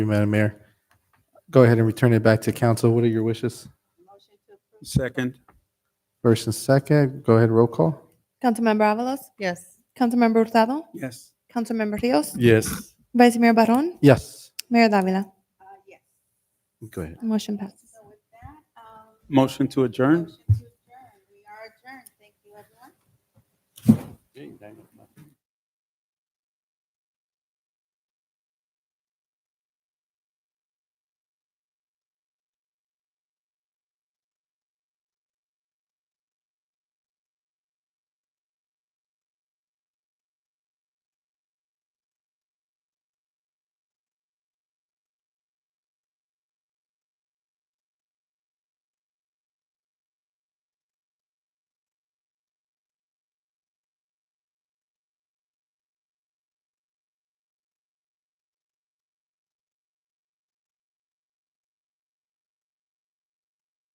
you, Madam Mayor. Go ahead and return it back to council. What are your wishes? Second, First and second, go ahead, roll call. Councilmember Avalos. Yes. Councilmember Hurtado. yes. Councilmember Rios. Yes. Vice Mayor Barron. Yes. Mayor Davila. Go ahead. Motion passes. Motion to adjourn? Okay, Diamond.